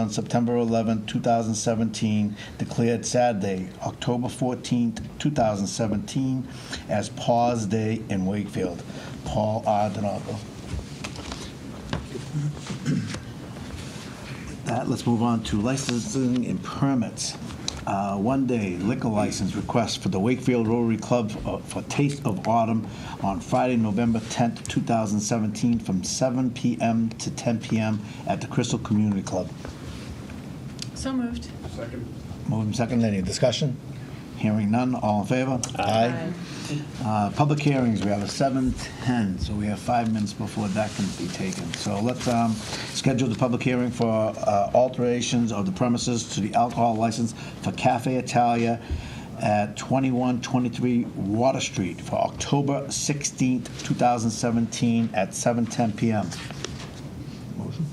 on September 11, 2017, declared Saturday, October 14, 2017, as Paws Day in Wakefield. Paul R. DiNardo. That, let's move on to licensing and permits. Uh, One day liquor license request for the Wakefield Rotary Club uh, for Taste of Autumn on Friday, November 10th, 2017, from 7 PM to 10 PM at the Crystal Community Club. So moved. Second. Moving second, any discussion? Hearing none, all in favor? Aye. Uh, Public hearings, we have a 7:10, so we have five minutes before that can be taken. So let's um, schedule the public hearing for uh, alterations of the premises to the alcohol license for Cafe Italia at 2123 Water Street for October 16th, 2017, at 7:10 PM. Motion?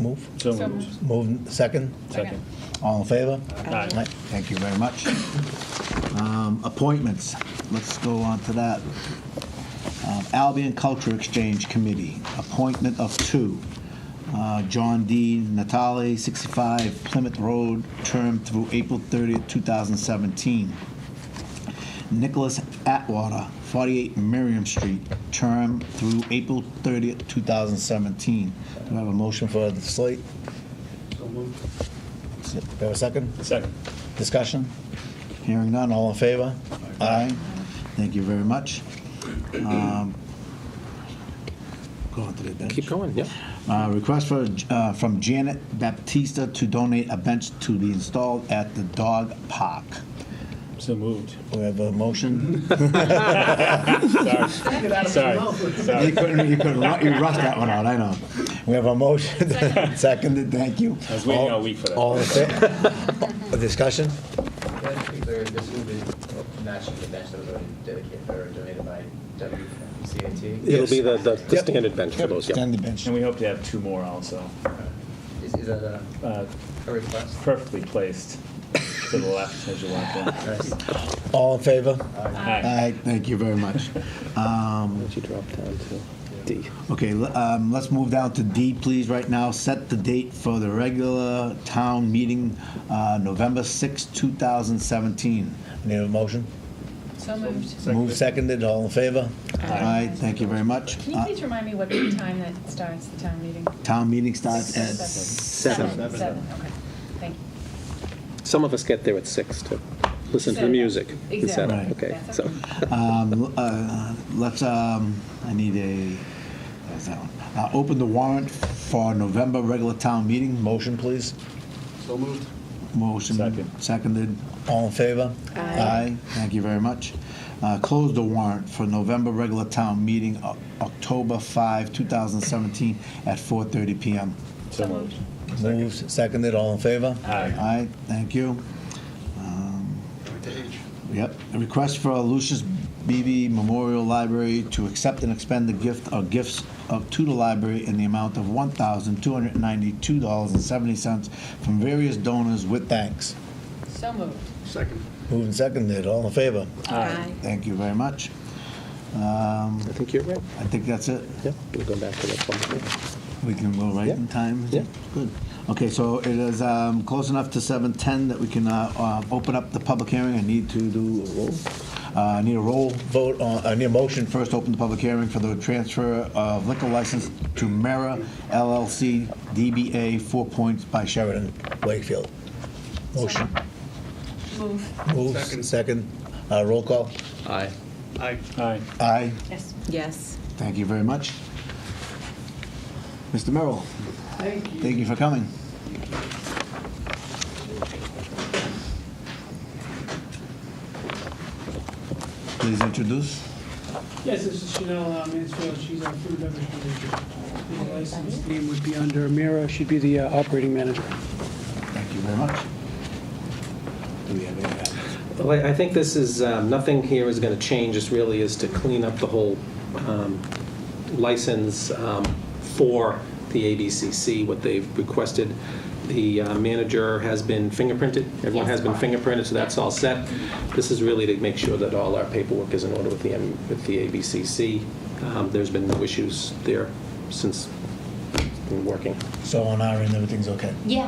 Move? So So moved. moved. Move, second? Second. All in favor? Aye. Right, Thank you very much. Um, Appointments, let's go on to that. Um, Albion Culture Exchange Committee, appointment of two. Uh, John D. Natale, 65 Plymouth Road, term through April 30th, 2017. Nicholas Atwater, 48 Miriam Street, term through April 30th, 2017. Do I have a motion for the slate? So moved. Do I have a second? Second. Discussion? Hearing none, all in favor? Aye. Thank you very much. Um, Go on to the bench. Keep going, yeah. Uh, Request for, uh, from Janet Baptista to donate a bench to be installed at the dog park. So moved. We have a motion? Sorry. Sorry. You Sorry. couldn't, you couldn't, ru- you rushed that one out, I know. We have a motion, seconded, thank you. I was waiting all week for that. All in favor? Discussion? Yeah, to be clear, this will be matching the bench that was already dedicated or donated by WCAT. It'll be the, the the Yep. standard bench for those, yeah. Extend the bench. And we hope to have two more also, Is, is that a, uh, a request? perfectly placed to the left as you walk in. Nice. All in favor? Aye. Aye, thank you very much. Um, Once you drop down to D. Okay, l- um, let's move down to D, please, right now. Set the date for the regular town meeting, uh, November 6, 2017. Need a motion? So moved. Move seconded, all in favor? Aye, thank you very much. Can you Uh, please remind me what time that starts, the town meeting? Town meeting starts at Seven. seven. Seven, okay. Thank you. Some of us get there at six to listen to the Seven. music. Exactly. Seven, Okay, That's so, okay. Um, uh, Let's, um, I need a, there's that one. Uh, Open the warrant for November regular town meeting. Motion, please. So moved. Motion Second. seconded. All in favor? Aye. Thank you very much. Uh, Close the warrant for November regular town meeting, O- October 5, 2017, at 4:30 PM. So moved. Moved, seconded, all in favor? Aye. Aye, thank you. Um, Yep, a request for Lucius Beebe Memorial Library to accept and expend the gift or gifts of, to the library in the amount of $1,292.70 from various donors with thanks. So moved. Moved and seconded, all in favor? Aye. Thank you very much. I think you're right. I think that's it. Yeah, we'll go back to that one. We can go right in Yeah. time. Yeah. Good. Okay, so it is um, close enough to 7:10 that we can uh, uh, open up the public hearing. I need to do, a roll. Uh, I need a roll vote, on- I need a motion first, open the public hearing for the transfer of liquor license to Mara LLC DBA Four Points by Sheridan, Wakefield. Motion. Move. Moves, second. Uh, Roll call. Aye. Aye. Aye. Yes. Yes. Thank you very much. Mr. Merrill? Thank you. for coming. Please introduce. Yes, this is Chanel uh, Mansfield, she's our food and beverage manager. The license name would be under Mira, she'd be the uh, operating manager. Thank you very much. Do we have any, Well, I I think this is, um, nothing here is going to change, this really is to clean up the whole um, license um, for the ABCC, what they've requested. The uh, manager has been fingerprinted, everyone has been fingerprinted, so that's all set. This is really to make sure that all our paperwork is in order with the, M- with the ABCC. Um, There's been no issues there since and working. So on our end, everything's okay? Yeah,